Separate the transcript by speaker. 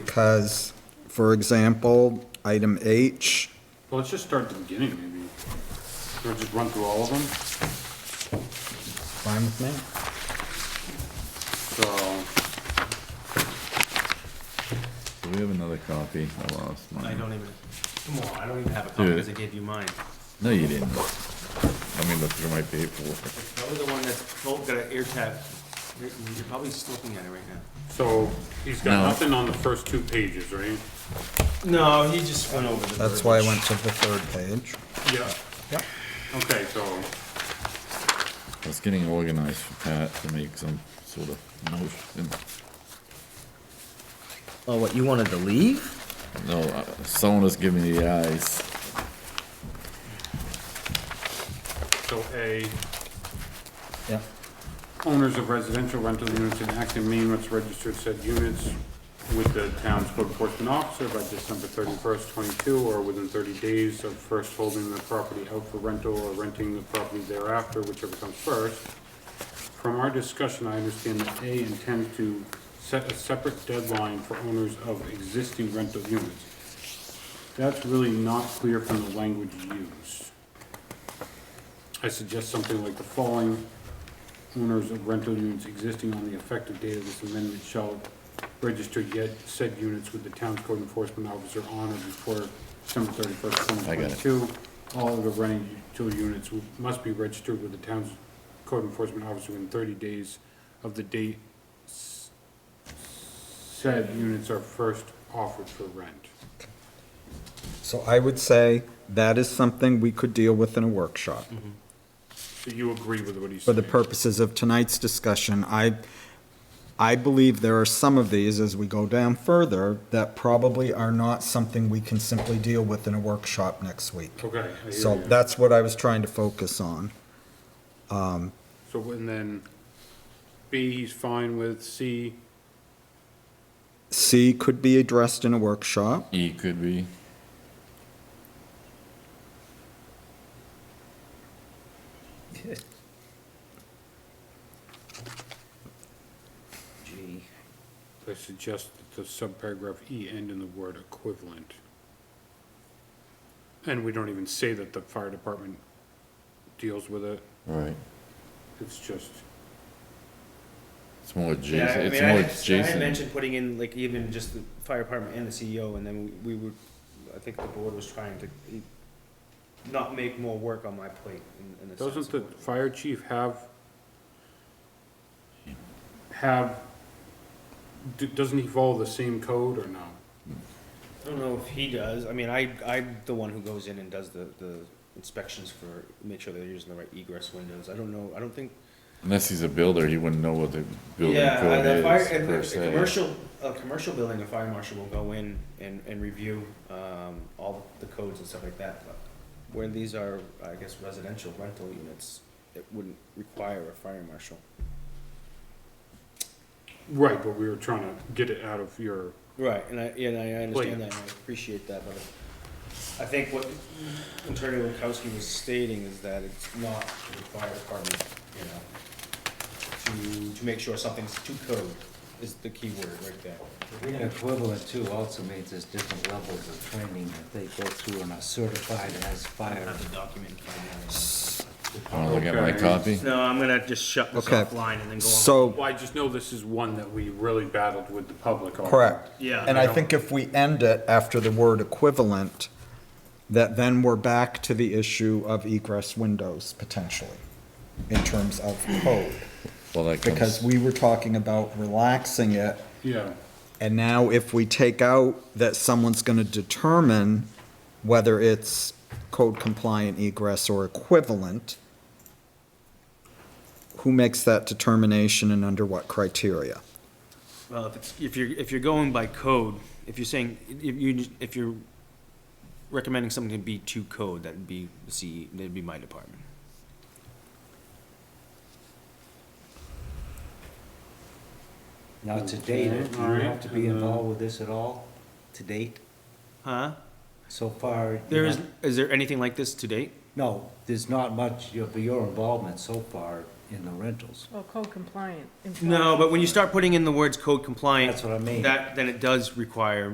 Speaker 1: because, for example, item H,
Speaker 2: Well, let's just start at the beginning, maybe. Or just run through all of them,
Speaker 1: fine with me.
Speaker 2: so.
Speaker 3: Do we have another copy? I lost mine.
Speaker 4: I don't even, come on, I don't even have a copy because I gave you mine.
Speaker 3: No, you didn't. Let me look through my paperwork.
Speaker 4: That was the one that's, oh, got an air tab. You're you're probably just looking at it right now.
Speaker 2: So, he's
Speaker 3: No.
Speaker 2: got nothing on the first two pages, right?
Speaker 4: No, he just went over the.
Speaker 1: That's why I went to the third page.
Speaker 2: Yeah.
Speaker 1: Yep.
Speaker 2: Okay, so,
Speaker 3: I was getting organized for Pat to make some sort of motion.
Speaker 5: Oh, what, you wanted to leave?
Speaker 3: No, uh, someone was giving me the eyes.
Speaker 2: so A,
Speaker 1: Yeah.
Speaker 2: owners of residential rental units in active Maine must register said units with the town's code enforcement officer by December thirty-first, twenty-two, or within thirty days of first holding the property out for rental or renting the property thereafter, whichever comes first. From our discussion, I understand that A intends to set a separate deadline for owners of existing rental units. That's really not clear from the language used. I suggest something like the following owners of rental units existing on the effective date of this amendment shall register yet said units with the town's code enforcement officer on or before December thirty-first,
Speaker 3: I
Speaker 2: twenty
Speaker 3: got it.
Speaker 2: twenty-two. All of the rental units w- must be registered with the town's code enforcement officer within thirty days of the date s- said units are first offered for rent.
Speaker 1: So I would say that is something we could deal with in a workshop.
Speaker 2: So you agree with what he's
Speaker 1: For
Speaker 2: saying?
Speaker 1: the purposes of tonight's discussion, I, I believe there are some of these, as we go down further, that probably are not something we can simply deal with in a workshop next week.
Speaker 2: Okay, I hear
Speaker 1: So
Speaker 2: you.
Speaker 1: that's what I was trying to focus on.
Speaker 2: So, and then B, he's fine with, C,
Speaker 1: C could be addressed in a workshop.
Speaker 3: E could be.
Speaker 5: Gee.
Speaker 2: I suggest that the subparagraph E end in the word equivalent. And we don't even say that the fire department deals with it,
Speaker 3: Right.
Speaker 2: it's just,
Speaker 3: It's more
Speaker 4: Yeah, I
Speaker 3: Jason.
Speaker 4: mean,
Speaker 3: It's
Speaker 4: I
Speaker 3: more
Speaker 4: had- I had
Speaker 3: Jason.
Speaker 4: mentioned putting in like even just the fire department and the CEO and then we we would, I think the board was trying to e- not make more work on my plate in, in a sense.
Speaker 2: doesn't the
Speaker 4: of what-
Speaker 2: fire chief have, have, d- doesn't he follow the same code or no?
Speaker 4: I don't know if he does. I mean, I, I'm the one who goes in and does the, the inspections for, make sure they're using the right egress windows. I don't know, I don't think.
Speaker 3: Unless he's a builder, he wouldn't know what the building
Speaker 4: Yeah, uh,
Speaker 3: code
Speaker 4: the
Speaker 3: is
Speaker 4: fire-
Speaker 3: per
Speaker 4: and a- a
Speaker 3: se.
Speaker 4: commercial, a commercial building, a fire marshal will go in and, and review, um, all the codes and stuff like that. But Where these are, I guess, residential rental units, it wouldn't require a fire marshal.
Speaker 2: Right, but we were trying to get it out of your,
Speaker 4: Right, and I, and I
Speaker 2: Wait.
Speaker 4: understand that, and I appreciate that, but I think what Attorney Lukowski was stating is that it's not for the fire department, you know, to, to make sure something's to code is the key word right there.
Speaker 6: Being equivalent too also means there's different levels of training that they go through and are certified as fire.
Speaker 4: the document.
Speaker 3: Wanna look at my
Speaker 2: Okay.
Speaker 3: copy?
Speaker 4: No, I'm gonna just shut this
Speaker 1: Okay.
Speaker 4: offline and then go on.
Speaker 1: So,
Speaker 2: well, I just know this is one that we really battled with the public on.
Speaker 1: correct.
Speaker 4: Yeah.
Speaker 1: And I think if we end it after the word equivalent, that then we're back to the issue of egress windows potentially in terms of code.
Speaker 3: Well, that
Speaker 1: Because
Speaker 3: comes,
Speaker 1: we were talking about relaxing it
Speaker 2: Yeah,
Speaker 1: And now if we take out that someone's gonna determine whether it's code compliant egress or equivalent, who makes that determination and under what criteria?
Speaker 4: Well, if it's, if you're, if you're going by code, if you're saying, if you, if you're recommending something to be to code, that'd be the CE, that'd be my department.
Speaker 6: Now, to date, do you have to be involved with this at all, to date?
Speaker 4: Huh?
Speaker 6: So far. you
Speaker 4: There is,
Speaker 6: know-
Speaker 4: is there anything like this to date?
Speaker 6: No, there's not much of your involvement so far in the rentals.
Speaker 7: Well, code compliant.
Speaker 4: No, but when you start putting in the words code compliant.
Speaker 6: That's what I mean.
Speaker 4: That, then it does require